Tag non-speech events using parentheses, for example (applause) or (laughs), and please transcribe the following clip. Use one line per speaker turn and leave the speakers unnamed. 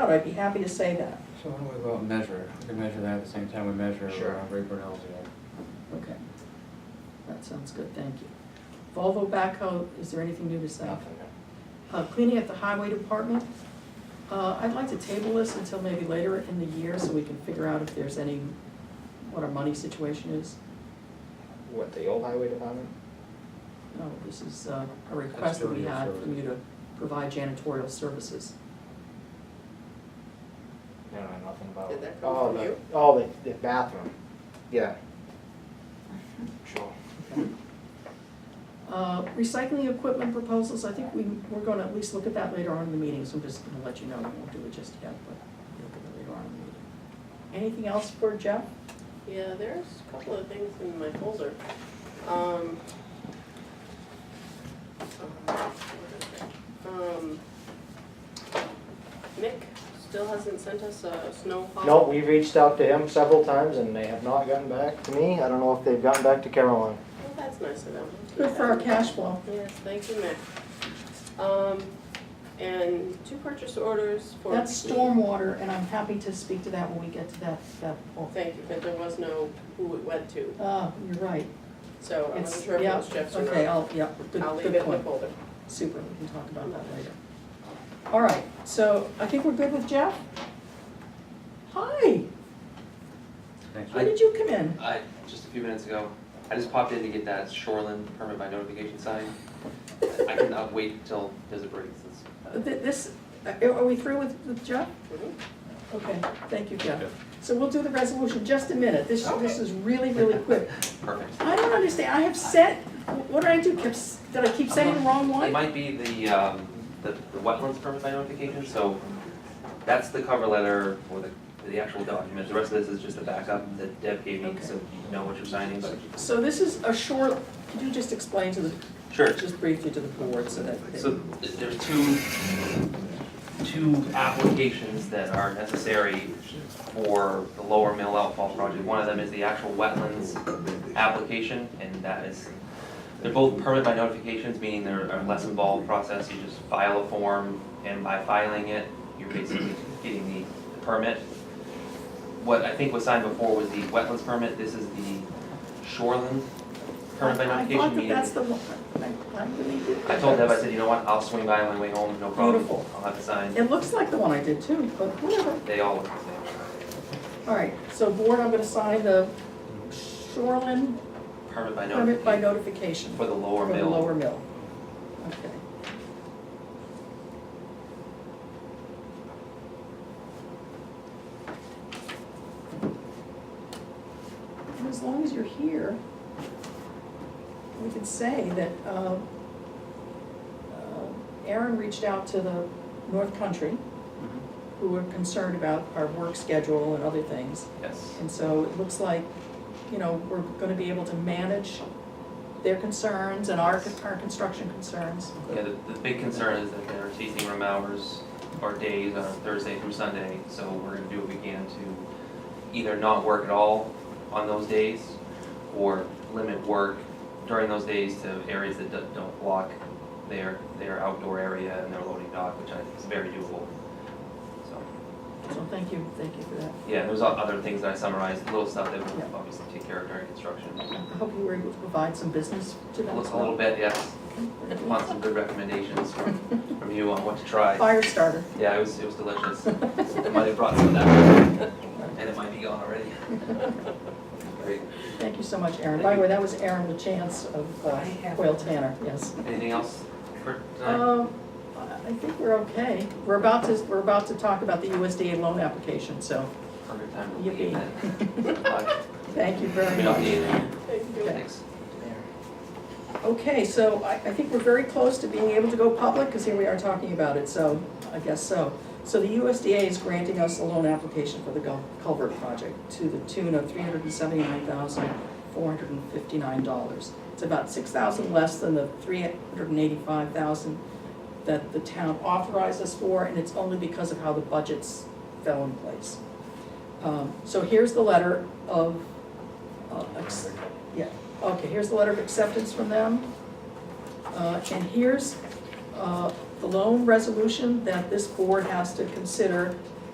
out, I'd be happy to say that.
So why don't we go out and measure it? We can measure that at the same time we measure
Sure.
uh, Ray Brunel's yard.
Okay. That sounds good, thank you. Volvo backhoe, is there anything new to say? Uh, Cleaning at the highway department, uh, I'd like to table this until maybe later in the year so we can figure out if there's any, what our money situation is.
What, the old highway department?
No, this is uh, a request that we
Custodial
had from
services.
you to provide janitorial services.
I don't know nothing about.
Did that come
Oh,
from
the-
you?
Oh, the, the bathroom,
(laughs)
yeah. Sure.
Uh, Recycling equipment proposals, I think we, we're gonna at least look at that later on in the meeting, so I'm just gonna let you know, we won't do it just yet, but we'll look at it later on in the meeting. Anything else for Jeff?
Yeah, there's a couple of things in my folder. Um. um, Mick still hasn't sent us a snow haul.
No, we've reached out to him several times and they have not gotten back to me. I don't know if they've gotten back to Caroline.
Well, Oh, that's nice of them.
Good for our cash flow.
Yes, thank you, Mick. Um, and two purchase orders for.
That's stormwater, and I'm happy to speak to that when we get to that, that point.
Thank you, but there was no who it went to,
Oh, you're right.
so I
It's
wasn't sure if it
yeah,
was Jeff's or not.
Okay, I'll, yeah, good,
I'll leave
good
it in the
point.
folder.
Super, we can talk about that later. All right, so I think we're good with Jeff? Hi,
Thanks.
how did you come in?
I, just a few minutes ago, I just popped in to get that shoreline permit by notification sign. I cannot wait till there's a break, since.
Th- Uh, This, uh, are are we through with with Jeff?
Mhm.
Okay, thank you, Jeff.
Yeah.
So we'll do the resolution in just a minute. This, this is really, really quick.
Perfect.
I don't understand, I have set, what did I do? Kept s- Did I keep setting the wrong
It
one?
might be the, um, the, the wetlands permit by notification, so that's the cover letter or the, the actual document. The rest of this is just a backup that Deb gave me, so you know what you're signing, but,
So this is a short, could you just explain to the,
sure.
just briefly to the board so that. they-
So th- there's two, two applications that are necessary for the lower mill outfall project. One of them is the actual wetlands application, and that is, they're both permit by notifications, meaning they're a less involved process. You just file a form, and by filing it, you're basically getting the permit. What I think was signed before was the wetlands permit, this is the shoreland permit by
I-
notification, meaning.
I thought that that's the one, I, I really did.
I told Deb, I said, you know what, I'll swing by on my way home, no problem.
Beautiful.
I'll have it signed.
It looks like the one I did too, but whatever.
They all look the same.
All right, so board, I'm gonna sign the shoreline
Permit by
permit by
notification
notification.
for the lower
From the
mill.
lower mill. Okay. And as long as you're here, we can say that uh, uh, Aaron reached out to the North Country, who were concerned about our work schedule and other things.
Yes,
And so it looks like, you know, we're gonna be able to manage their concerns and our, our construction concerns.
yeah, the, the big concern is that their tasting room hours are days on Thursday through Sunday, so we're gonna do what we can to either not work at all on those days or limit work during those days to areas that don't- don't block their, their outdoor area and their loading dock, which I think is very doable. So.
So thank you, thank you for that.
Yeah, there's o- other things that I summarized, little stuff that we'll obviously take care of during construction.
I hope you were able to provide some business to
A
them as
little- a little
well.
bit, yes. Want some good recommendations from,
(laughs)
from you on what to try.
Fire starter.
Yeah, it was, it was
(laughs)
delicious. I might have brought some of that, and it might be gone
(laughs)
already. Great.
Thank you so much, Aaron. By the way, that was Aaron LaChance of uh, Quail Tanner, yes.
Anything else for tonight?
Um, I I think we're okay. We're about to, we're about to talk about the USDA loan application, so
Perfect time to leave
yippee. (laughs)
then. Bye.
Thank you very
We don't
much.
need anything.
Thank you.
Thanks.
Okay, so I, I think we're very close to being able to go public, because here we are talking about it, so I guess so. So the USDA is granting us a loan application for the Gul- culvert project to the tune of three hundred and seventy-nine thousand, four hundred and fifty-nine dollars. It's about six thousand less than the three hundred and eighty-five thousand that the town authorized us for, and it's only because of how the budgets fell in place. Um, So here's the letter of, uh, ex- yeah, okay, here's the letter of acceptance from them. Uh, And here's uh, the loan resolution that this board has to consider